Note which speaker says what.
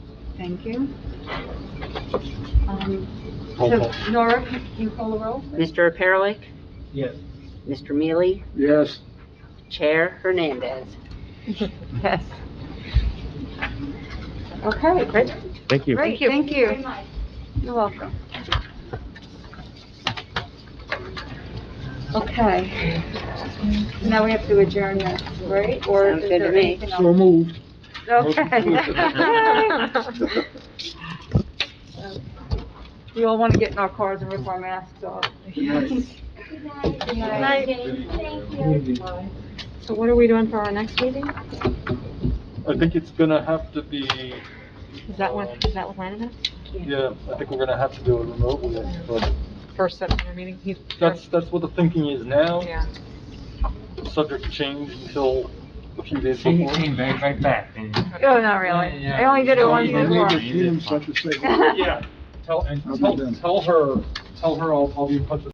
Speaker 1: Thank you. Um,
Speaker 2: Roll
Speaker 1: So
Speaker 2: call.
Speaker 1: Nora, can you call the roll? please?
Speaker 3: Mr. Perelik,
Speaker 2: Yes.
Speaker 3: Mr. Mealy,
Speaker 2: Yes.
Speaker 3: Chair Hernandez.
Speaker 1: Yes. Okay, great.
Speaker 4: Thank you.
Speaker 1: Great, thank you. You're welcome. Okay. Now we have to adjourn this, right? Or
Speaker 3: Sounds
Speaker 1: is
Speaker 3: good to
Speaker 1: there
Speaker 3: me.
Speaker 1: anything else?
Speaker 2: So moved.
Speaker 1: Okay. We all want to get in our cars and rip our masks off.
Speaker 5: Good
Speaker 1: night.
Speaker 5: night. Thank you.
Speaker 1: So what are we doing for our next meeting?
Speaker 2: I think it's gonna have to be,
Speaker 1: Is that when, is that with Landon?
Speaker 2: yeah, I think we're gonna have to do it remotely, but
Speaker 6: first September meeting, he's,
Speaker 2: that's, that's what the thinking is now.
Speaker 6: yeah.
Speaker 2: Subject changed until a few days
Speaker 4: She
Speaker 2: before.
Speaker 4: came right, right back. and-
Speaker 1: Oh, not really. I only did it once
Speaker 4: Yeah,
Speaker 1: before.
Speaker 4: yeah, yeah.
Speaker 2: Yeah, tell, and tell, tell her, tell her I'll, I'll be in touch with